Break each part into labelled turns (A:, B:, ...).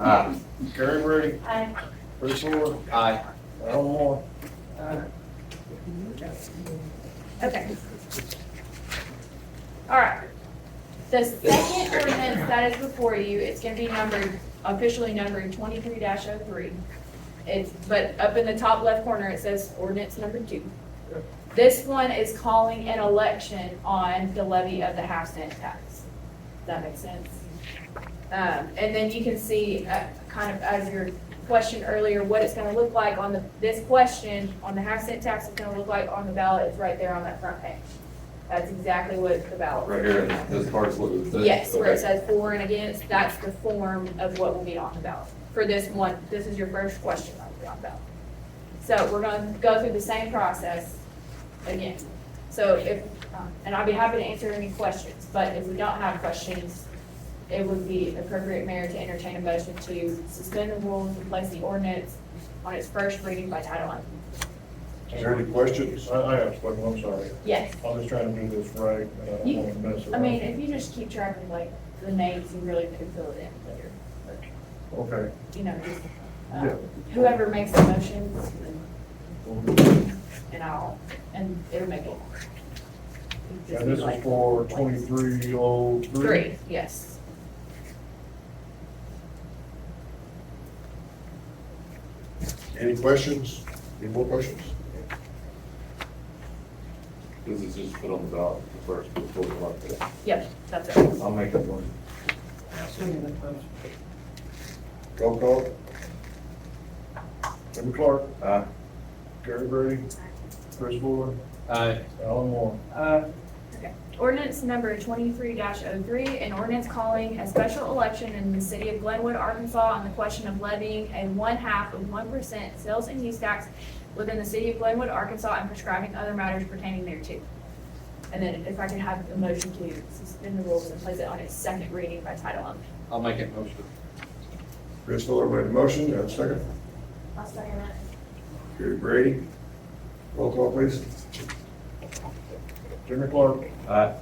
A: Aye.
B: Gary Brady,
C: Aye.
B: Bruce Moore,
A: Aye.
B: Earl Moore,
C: Okay. All right. The second ordinance that is before you, it's gonna be numbered, officially numbered twenty-three 3 It's, but up in the top left corner, it says ordinance number two. This one is calling an election on the levy of the half cent tax. Does that make sense? Um, and then you can see, uh, kind of as your question earlier, what it's gonna look like on the, this question on the half cent tax is gonna look like on the ballot, it's right there on that front page. That's exactly what the ballot.
A: Right here, in this part's what it says.
C: Yes, where it
A: Okay.
C: says for and against, that's the form of what will be on the ballot. For this one, this is your first question that will be on the ballot. So we're gonna go through the same process again. So if, um, and I'll be happy to answer any questions, but if we don't have questions, it would be appropriate, Mayor, to entertain a motion to suspend the rules and place the ordinance on its first reading by title only.
D: Is there any questions?
B: I, I have a question, I'm sorry.
C: Yes.
B: I'm just trying to do this right, and I don't
C: You-
B: want to mess around.
C: I mean, if you just keep track of like the names, you really could fill it in later.
B: Okay.
C: you know, just, um,
B: Yeah.
C: whoever makes the motions, and I'll, and it'll make it.
B: And this is for twenty-three oh three?
C: Three, yes.
D: Any questions? Any more questions?
A: This is just put on the ballot first before the election.
C: Yep, that's it.
A: I'll make that one.
D: Roll call?
B: Jimmy Clark,
A: Aye.
B: Gary Brady, Bruce Moore,
A: Aye.
B: Alan Moore.
C: Ordinance number twenty-three 3 an ordinance calling a special election in the city of Glenwood, Arkansas on the question of levying a one-half of one percent sales and use tax within the city of Glenwood, Arkansas, and prescribing other matters pertaining thereto. And then if I could have a motion to suspend the rules and place it on its second reading by title only.
A: I'll make it motion.
D: Chris Fuller made a motion, and a second.
C: I'll second that.
D: Gary Brady. Roll call, please.
B: Jimmy Clark,
A: Aye.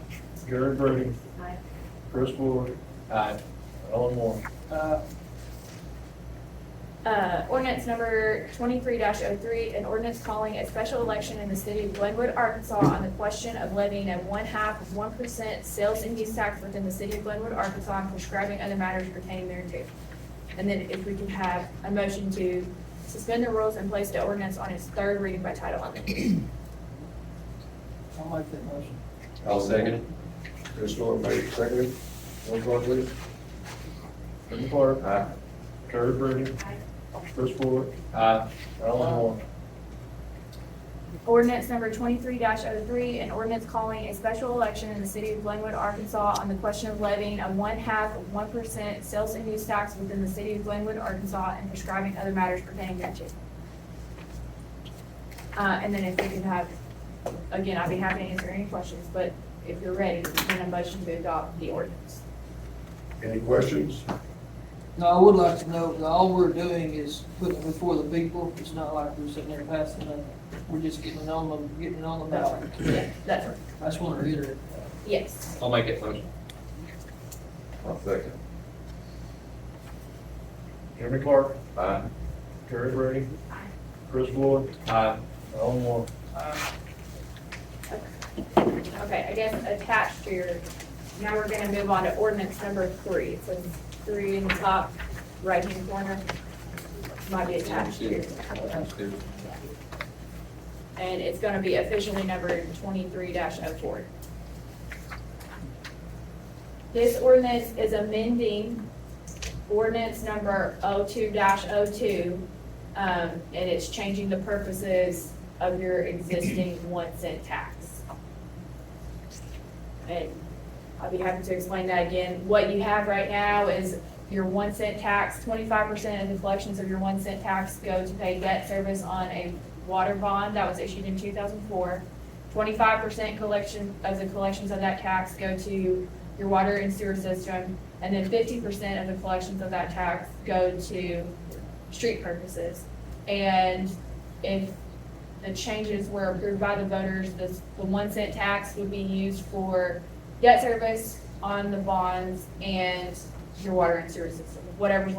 B: Gary Brady,
C: Aye.
B: Bruce Moore,
A: Aye.
B: Alan Moore.
C: Uh, ordinance number twenty-three 3 an ordinance calling a special election in the city of Glenwood, Arkansas on the question of levying a one-half of one percent sales and use tax within the city of Glenwood, Arkansas, and prescribing other matters pertaining thereto. And then if we could have a motion to suspend the rules and place the ordinance on its third reading by title only.
E: I'll make that motion.
A: I'll second it.
D: Chris Fuller made a second. Roll call, please.
B: Jimmy Clark,
A: Aye.
B: Gary Brady, Bruce Moore,
A: Aye.
B: Alan Moore.
C: Ordinance number twenty-three 3 an ordinance calling a special election in the city of Glenwood, Arkansas on the question of levying a one-half of one percent sales and use tax within the city of Glenwood, Arkansas, and prescribing other matters pertaining thereto. Uh, and then if we could have, again, I'd be happy to answer any questions, but if you're ready, then a motion to adopt the ordinance.
D: Any questions?
E: Now, I would like to know, that all we're doing is putting it before the people, it's not like we're sitting there passing it, we're just getting it on the, getting it on the
C: That's
E: ballot.
C: right. Yeah, that's right.
E: I just want to reiterate that.
C: Yes.
A: I'll make it motion. I'll second.
B: Jimmy Clark,
A: Aye.
B: Gary Brady, Bruce Moore,
A: Aye.
B: Alan Moore.
C: Okay, I guess attached to your, now we're gonna move on to ordinance number three. It says three in the top right-hand corner. Might be attached here. And it's gonna be officially numbered twenty-three oh 4 This ordinance is amending ordinance number oh oh-two 2 um, and it's changing the purposes of your existing one cent tax. And I'll be happy to explain that again. What you have right now is your one cent tax, twenty-five percent of the collections of your one cent tax go to pay debt service on a water bond that was issued in two thousand four. Twenty-five percent collection of the collections of that tax go to your water and sewer system, and then fifty percent of the collections of that tax go to street purposes. And if the changes were approved by the voters, this, the one cent tax would be used for debt service on the bonds and your water and sewer system, whatever's